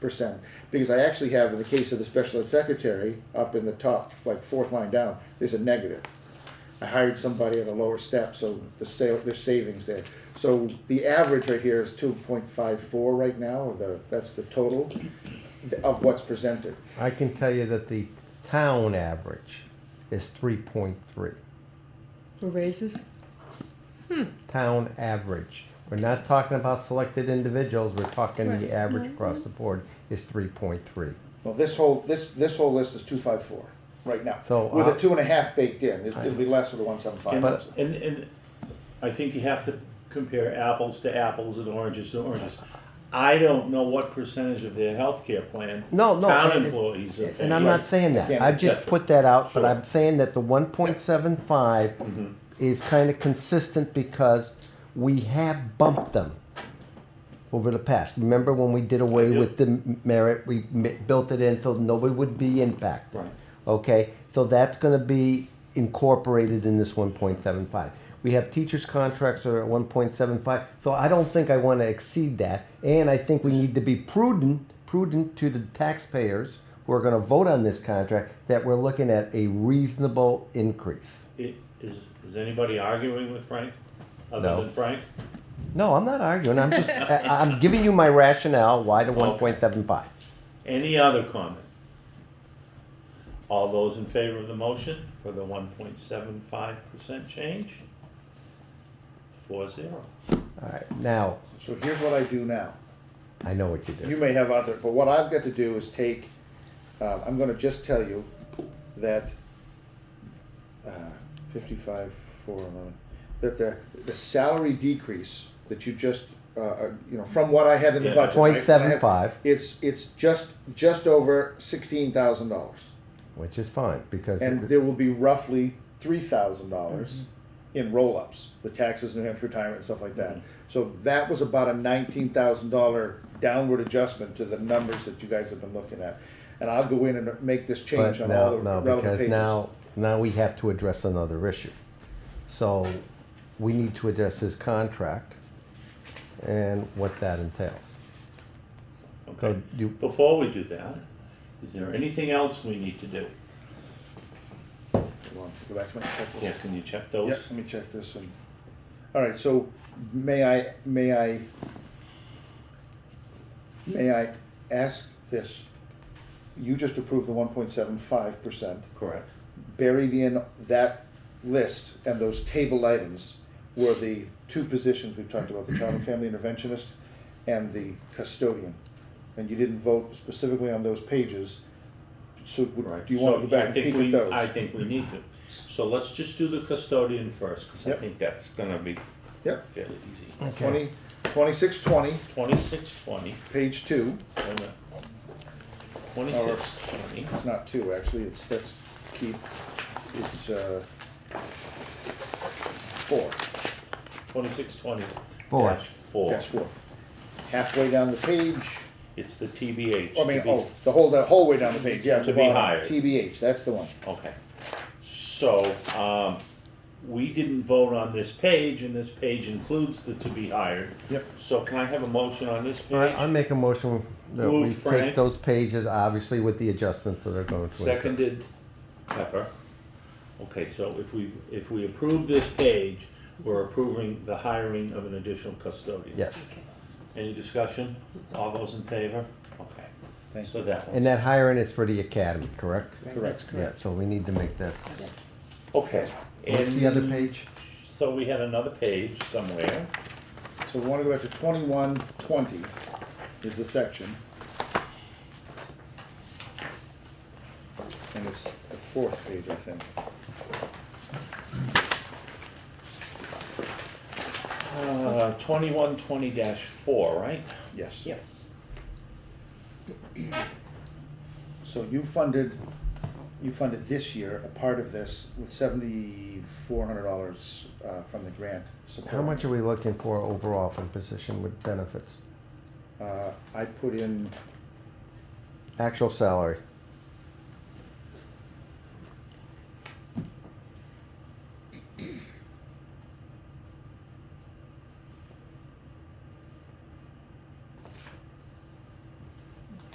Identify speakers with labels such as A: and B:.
A: percent, because I actually have, in the case of the special ed secretary, up in the top, like fourth line down, there's a negative. I hired somebody at a lower step, so the sale, there's savings there. So the average right here is two point five four right now, or the, that's the total of what's presented.
B: I can tell you that the town average is three point three.
C: For raises?
B: Town average. We're not talking about selected individuals, we're talking
C: Right.
B: the average across the board is three point three.
A: Well, this whole, this, this whole list is two five four right now.
B: So,
A: With a
B: uh,
A: two and a half baked in, It- it'll be less with the one seven five.
B: But-
D: And, and I think you have to compare apples to apples and oranges to oranges. I don't know what percentage of their healthcare plan.
B: No, no, I-
D: Town employees are paying.
B: And I'm not saying that, I've just put that out, but
D: Sure. Mm-hmm.
B: I'm saying that the one point seven five is kinda consistent because we have bumped them over the past. Remember when we did away
D: do.
B: with the merit, we mi- built it in so nobody would be impacted.
D: Right.
B: Okay, so that's gonna be incorporated in this one point seven five. We have teachers' contracts are at one point seven five, so I don't think I wanna exceed that. And I think we need to be prudent, prudent to the taxpayers who are gonna vote on this contract, that we're looking at a reasonable increase.
D: It- Is, is anybody arguing with Frank? Other
B: No.
D: than Frank?
B: No, I'm not arguing, I'm just, I, I'm giving you my rationale why the one point seven five.
D: Any other comment? All those in favor of the motion for the one point seven five percent change? Four zero.
B: All right, now,
A: So here's what I do now.
B: I know what you
A: You
B: did.
A: may have other, but what I've got to do is take, uh, I'm gonna just tell you that, uh, fifty-five, four, eleven, that the, the salary decrease that you just, uh, uh, you know, from what I had in the
D: Yeah.
A: budget. right,
B: Point seven
A: what I had,
B: five,
A: It's, it's just, just over sixteen thousand dollars,
B: which is fine, because.
A: and there will be roughly three thousand dollars
B: Mm-hmm.
A: in roll-ups, the taxes, New Hampshire retirement and stuff like that. So that was about a nineteen thousand dollar downward adjustment to the numbers that you guys have been looking at. And I'll go in and make this
B: But
A: change on all
B: now,
A: the
B: no,
A: relevant
B: because
A: pages.
B: now, now we have to address another issue. So we need to address his contract and what that entails.
D: Okay,
B: So you-
D: before we do that, is there anything else we need to do?
A: Hold on, Go back to my checklist.
D: Yeah, Can you check
A: Yeah,
D: those?
A: let me check this and, all right, so may I, may I, may I ask this? You just approved the one point seven five percent.
D: Correct.
A: buried in that list and those table items were the two positions we've talked about, the child and family interventionist and the custodian. And you didn't vote specifically on those pages, so would-
D: Right.
A: do you wanna
D: So
A: go back
D: I
A: and
D: think
A: peek
D: we-
A: at those?
D: I think we need to. So let's just do the custodian first, because I
A: Yep.
D: think that's gonna be
A: Yep,
D: fairly easy.
A: twenty, twenty-six twenty,
D: Twenty-six twenty,
A: page two,
D: twenty-six twenty,
A: it's not two, actually, it's, that's Keith, it's, uh, four,
D: twenty-six twenty.
B: Four.
D: dash Four.
A: that's four. Halfway down the page,
D: It's the TBH.
A: I mean,
D: to be-
A: oh, the whole, the whole way down the page, yeah. at the
D: To be
A: bottom.
D: hired.
A: TBH, that's the one.
D: Okay. So, um, we didn't vote on this page, and this page includes the to be hired.
A: Yep.
D: So can I have a motion on this
B: All right,
D: page?
B: I make a motion that we
D: Moved,
B: take
D: Frank.
B: those pages, obviously with the adjustments that are going to. occur.
D: Seconded Pepper. Okay, so if we, if we approve this page, we're approving the hiring of an additional custodian.
B: Yes,
D: Any discussion? All those in favor? Okay,
A: Thank
D: so that
B: and
D: one's,
B: that hiring is for the academy, correct?
A: Correct.
B: Yeah, so we need to make that.
D: okay.
B: What's the other
D: And
B: page?
D: So we had another page somewhere.
A: So we wanna go back to twenty-one twenty is the section. And it's the fourth page, I think.
D: Uh, twenty-one twenty dash four, right?
A: Yes.
C: Yes.
A: So you funded, you funded this year a part of this with seventy-four hundred dollars, uh, from the grant support.
B: How much are we looking for overall for the position with benefits?
A: Uh, I put in,
B: Actual salary,